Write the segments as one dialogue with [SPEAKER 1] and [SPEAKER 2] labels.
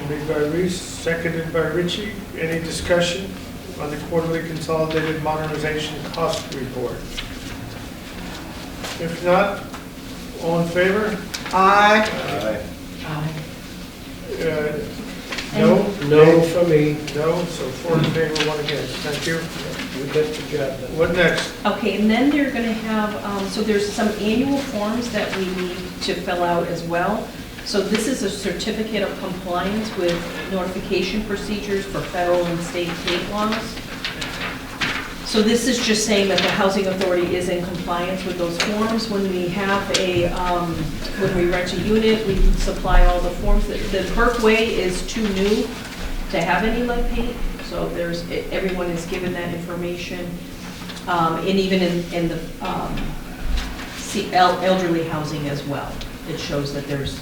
[SPEAKER 1] Motion made by Reese, seconded by Ritchie. Any discussion on the quarterly consolidated modernization cost report? If not, all in favor?
[SPEAKER 2] Aye.
[SPEAKER 3] Aye.
[SPEAKER 1] Uh, No?
[SPEAKER 4] No from me,
[SPEAKER 1] No, so four in favor, one against. Thank you.
[SPEAKER 4] you get the job done.
[SPEAKER 1] What next?
[SPEAKER 5] Okay, and then they're going to have, um, so there's some annual forms that we need to fill out as well. So this is a certificate of compliance with notification procedures for federal and state gate laws. So this is just saying that the housing authority is in compliance with those forms. When we have a, um, when we rent a unit, we supply all the forms. The the Berkway is too new to have any lead paint, so there's, everyone is given that information. Um, And even in, in the um, see, el- elderly housing as well, it shows that there's,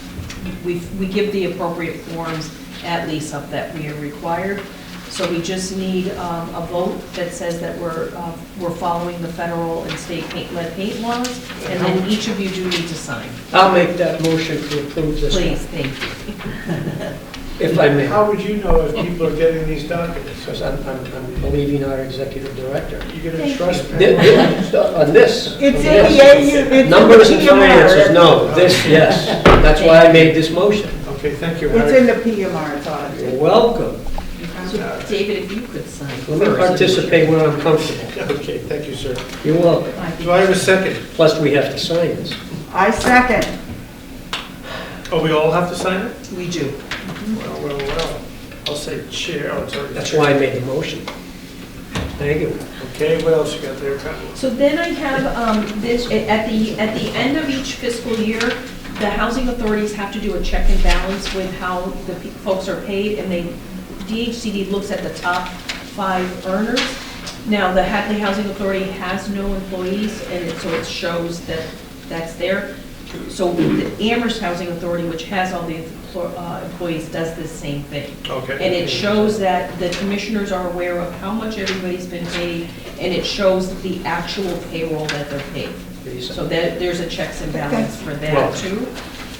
[SPEAKER 5] we, we give the appropriate forms at lease-up that we are required. So we just need um, a vote that says that we're, uh, we're following the federal and state paint, lead paint laws, and then each of you do need to sign.
[SPEAKER 4] I'll make that motion to approve this one,
[SPEAKER 5] Please, thank you.
[SPEAKER 4] if I may.
[SPEAKER 1] How would you know if people are getting these documents?
[SPEAKER 4] Because I'm, I'm I'm believing our executive director.
[SPEAKER 1] You gonna trust me?
[SPEAKER 4] Thi- thi- On this.
[SPEAKER 2] It's
[SPEAKER 4] on
[SPEAKER 2] in
[SPEAKER 4] this.
[SPEAKER 2] the AU, it's in the
[SPEAKER 4] Numbers and
[SPEAKER 2] PMR.
[SPEAKER 4] finances, no, this, yes. That's why I made this motion.
[SPEAKER 1] Okay, thank you,
[SPEAKER 2] It's in
[SPEAKER 1] Harry.
[SPEAKER 2] the PMR, it's on.
[SPEAKER 4] You're welcome.
[SPEAKER 5] So David, if you could sign.
[SPEAKER 4] Let me
[SPEAKER 5] first.
[SPEAKER 4] participate when I'm comfortable.
[SPEAKER 1] Okay, thank you, sir.
[SPEAKER 4] You're welcome.
[SPEAKER 1] Do I have a second?
[SPEAKER 4] Plus, we have to sign this.
[SPEAKER 2] I second.
[SPEAKER 1] Oh, we all have to sign it?
[SPEAKER 5] We do.
[SPEAKER 1] Well, well, well. I'll say chair, oh, it's already.
[SPEAKER 4] That's
[SPEAKER 1] chair.
[SPEAKER 4] why I made the motion. Thank you.
[SPEAKER 1] Okay, what else you got there, Pat?
[SPEAKER 5] So then I have um, this, at the, at the end of each fiscal year, the housing authorities have to do a check and balance with how the pe- folks are paid, and they, DHCD looks at the top five earners. Now, the Hadley Housing Authority has no employees, and it- so it shows that that's there. So the Amherst Housing Authority, which has all the emplo- uh, employees, does the same thing. And
[SPEAKER 1] Okay.
[SPEAKER 5] it shows that the commissioners are aware of how much everybody's been paid, and it shows the actual payroll that they're paid. So that, there's a checks and balance for
[SPEAKER 4] Well-
[SPEAKER 5] that too.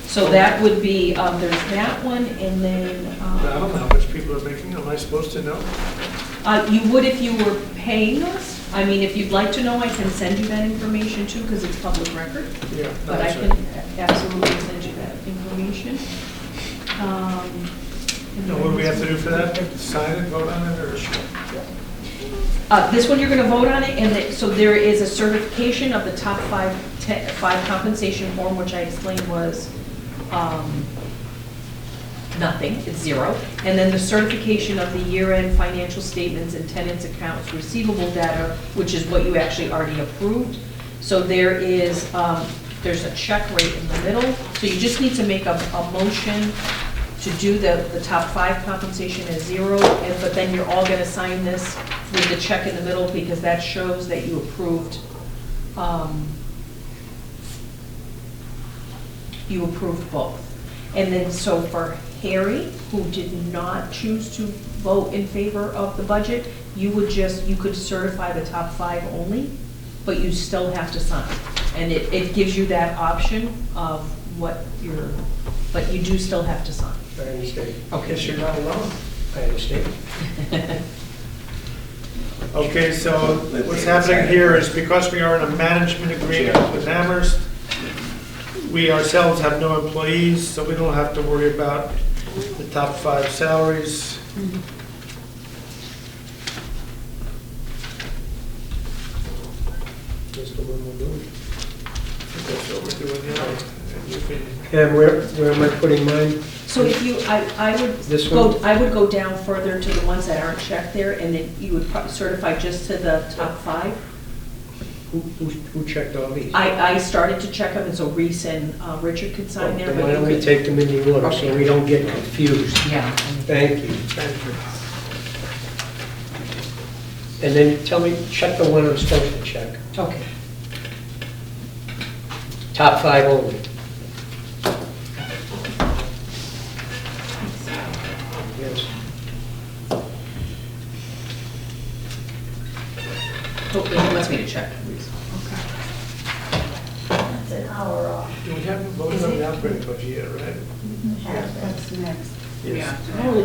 [SPEAKER 5] So that would be, um, there's that one, and then,
[SPEAKER 1] I don't know
[SPEAKER 5] um,
[SPEAKER 1] how much people are making, am I supposed to know?
[SPEAKER 5] uh, you would if you were paying us. I mean, if you'd like to know, I can send you that information too, because it's public record.
[SPEAKER 1] Yeah. no,
[SPEAKER 5] But I
[SPEAKER 1] sorry.
[SPEAKER 5] can absolutely send you that information. Um, and
[SPEAKER 1] And what do we
[SPEAKER 5] then-
[SPEAKER 1] have to do for that? Sign it, vote on it, or?
[SPEAKER 5] Uh, This one, you're going to vote on it, and it- so there is a certification of the top five, te- five compensation form, which I explained was um, nothing, it's zero. And then the certification of the year-end financial statements and tenants' accounts receivable data, which is what you actually already approved. So there is, um, there's a check right in the middle, so you just need to make a, a motion to do the, the top five compensation as zero, and- but then you're all gonna sign this with the check in the middle, because that shows that you approved, um, you approved both. And then, so for Harry, who did not choose to vote in favor of the budget, you would just, you could certify the top five only, but you still have to sign. And it, it gives you that option of what your, but you do still have to sign.
[SPEAKER 4] I understand.
[SPEAKER 1] Okay, you're not alone.
[SPEAKER 4] I understand.
[SPEAKER 1] Okay, so what's happening here is because we are in a management agreement with Amherst, we ourselves have no employees, so we don't have to worry about the top five salaries.
[SPEAKER 4] Just the one we're doing.
[SPEAKER 1] That's what we're doing now. And you can-
[SPEAKER 4] And where, where am I putting mine?
[SPEAKER 5] So if you, I, I would
[SPEAKER 4] This
[SPEAKER 5] go,
[SPEAKER 4] one?
[SPEAKER 5] I would go down further to the ones that aren't checked there, and then you would pro- certify just to the top five.
[SPEAKER 4] Who, who who checked all these?
[SPEAKER 5] I, I started to check them, and so Reese and uh, Richard could sign there.
[SPEAKER 4] Then
[SPEAKER 5] but
[SPEAKER 4] Why
[SPEAKER 5] you
[SPEAKER 4] don't we
[SPEAKER 5] could-
[SPEAKER 4] take them in the order, so we don't get confused?
[SPEAKER 5] Yeah.
[SPEAKER 4] Thank you.
[SPEAKER 1] Thank you.
[SPEAKER 4] And then tell me, check the one I'm supposed to check.
[SPEAKER 5] Okay.
[SPEAKER 4] Top five only. Yes.
[SPEAKER 5] Oh, he wants me to check.
[SPEAKER 6] That's an hour off.
[SPEAKER 1] Do we haven't voted on the operating budget yet, right?
[SPEAKER 6] Half,
[SPEAKER 2] That's next.
[SPEAKER 1] Yes.
[SPEAKER 5] Holy